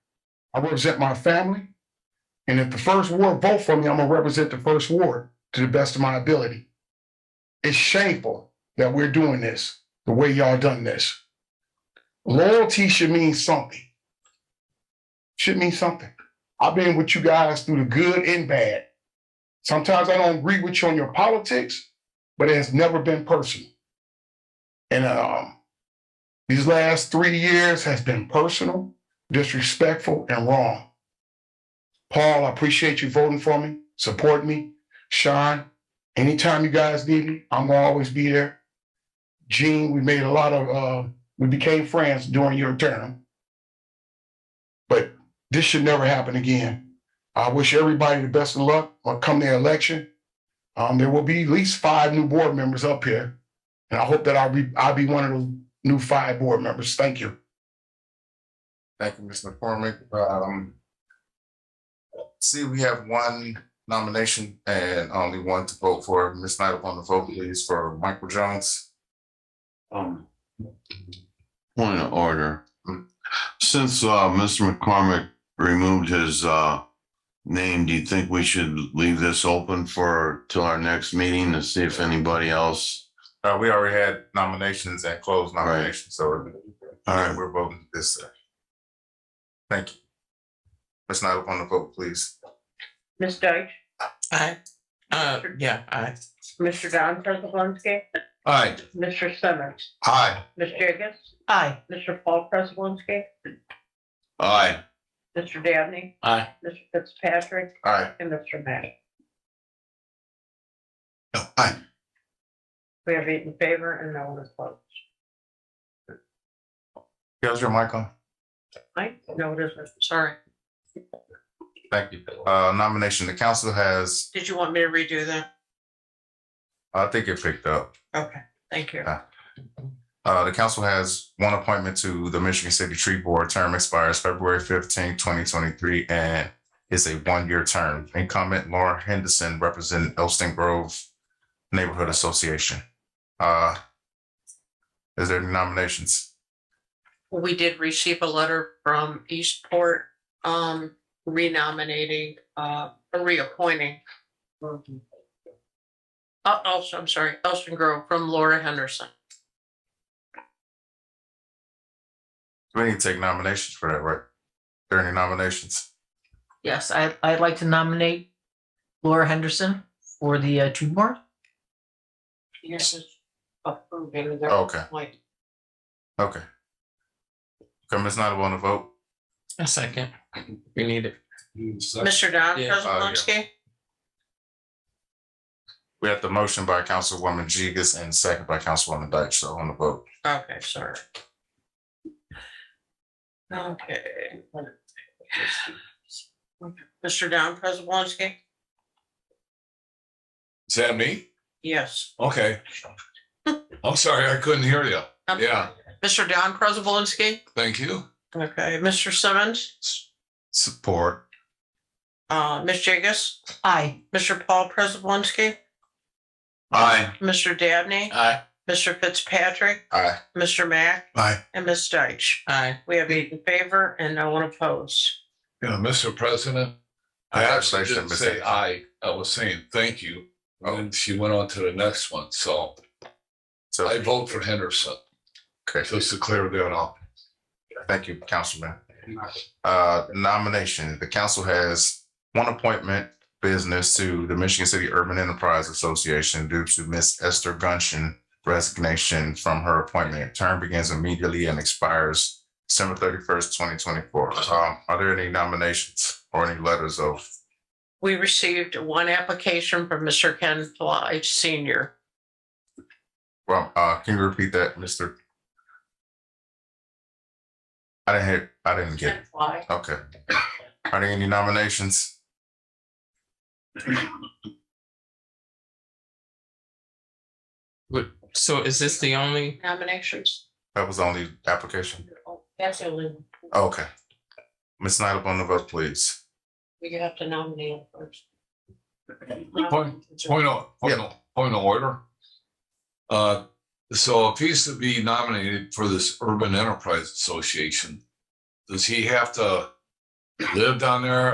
I represent my family. And if the first ward vote for me, I'm gonna represent the first ward to the best of my ability. It's shameful that we're doing this the way y'all done this. Loyalty should mean something. Should mean something. I've been with you guys through the good and bad. Sometimes I don't agree with you on your politics, but it has never been personal. And um, these last three years has been personal, disrespectful, and wrong. Paul, I appreciate you voting for me, supporting me. Sean, anytime you guys need me, I'm gonna always be there. Gene, we made a lot of, uh, we became friends during your term. But this should never happen again. I wish everybody the best of luck when come the election. Um, there will be at least five new board members up here. And I hope that I'll be, I'll be one of those new five board members. Thank you. Thank you, Mr. McCormick. Um, see, we have one nomination and only one to vote for. Ms. Knight upon the vote, please, for Michael Jones. Um, point of order. Hmm. Since, uh, Mr. McCormick removed his, uh, name, do you think we should leave this open for, till our next meeting to see if anybody else? Uh, we already had nominations and closed Right. nominations, so All right, we're voting this. uh, Thank you. Ms. Knight upon the vote, please. Ms. Deitch, Aye. Uh, yeah, aye. Mr. Don Prespolinski, Aye. Mr. Simmons, Aye. Ms. Jacobs, Aye. Mr. Paul Prespolinski, aye, Mr. Dabney. Aye. Mr. Fitzpatrick Aye. and Mr. Matt. Oh, Aye. We have eight in favor and no one opposed. How's your mic on? Aye, no, it isn't. Sorry. Thank you. Uh, nomination, the council has, Did you want me to redo that? I think it picked up. Okay, thank you. Uh, the council has one appointment to the Michigan City Tree Board. Term expires February fifteenth, twenty twenty-three, and is a one-year term. Incumbent Laura Henderson, representing Elston Grove Neighborhood Association. Uh, is there any nominations? we did receive a letter from Eastport, um, renominating, uh, reappointing. Uh, also, I'm sorry, Elston Grove from Laura Henderson. We need to take nominations for that, right? Are there any nominations? Yes, I, I'd like to nominate Laura Henderson for the uh, tree board. Yes. it's Approving their Okay, appointment. okay. Okay, Ms. Nyla, want to vote? A second. We need it. Mr. Don Yeah. Oh, yeah. Prespolinski, We have the motion by Councilwoman Jigus and second by Councilwoman Deitch, so on the vote. okay, sorry. Okay. Mr. Don Prespolinski, Is that me? yes. Okay. I'm sorry, I couldn't hear you. I'm Yeah, Mr. Don Prespolinski, thank you. okay, Mr. Simmons. Support. Uh, Ms. Jagus, Aye. Mr. Paul Prespolinski, aye, Mr. Dabney, Aye. Mr. Fitzpatrick, Aye. Mr. Mack. Aye. And Ms. Deitch. Aye. We have eight in favor and no one opposed. Yeah, Mr. President, I actually Congratulations, Oh. didn't Ms. say Jagus. I, I was saying thank you. And then she went on to the next one, so So I vote for Henderson, Okay, just to clear that up. thank you, Councilman. Uh, nomination, the council has one appointment business to the Michigan City Urban Enterprise Association due to Miss Esther Gunshin resignation from her appointment. Term begins immediately and expires December thirty-first, twenty twenty-four. Um, are there any nominations or any letters of? We received one application from Mr. Ken Fly Senior. Well, uh, can you repeat that, Mister? I didn't hear, I didn't get it. Fly. Okay. Are there any nominations? So is this the only? Nominations. That was the only application. Oh. Oh, That's the only one. Okay. Ms. Knight upon the vote, please. We have to nominate him first. Point- Point of, point of, point of order. Uh, so if he's to be nominated for this Urban Enterprise Association, does he have to live down there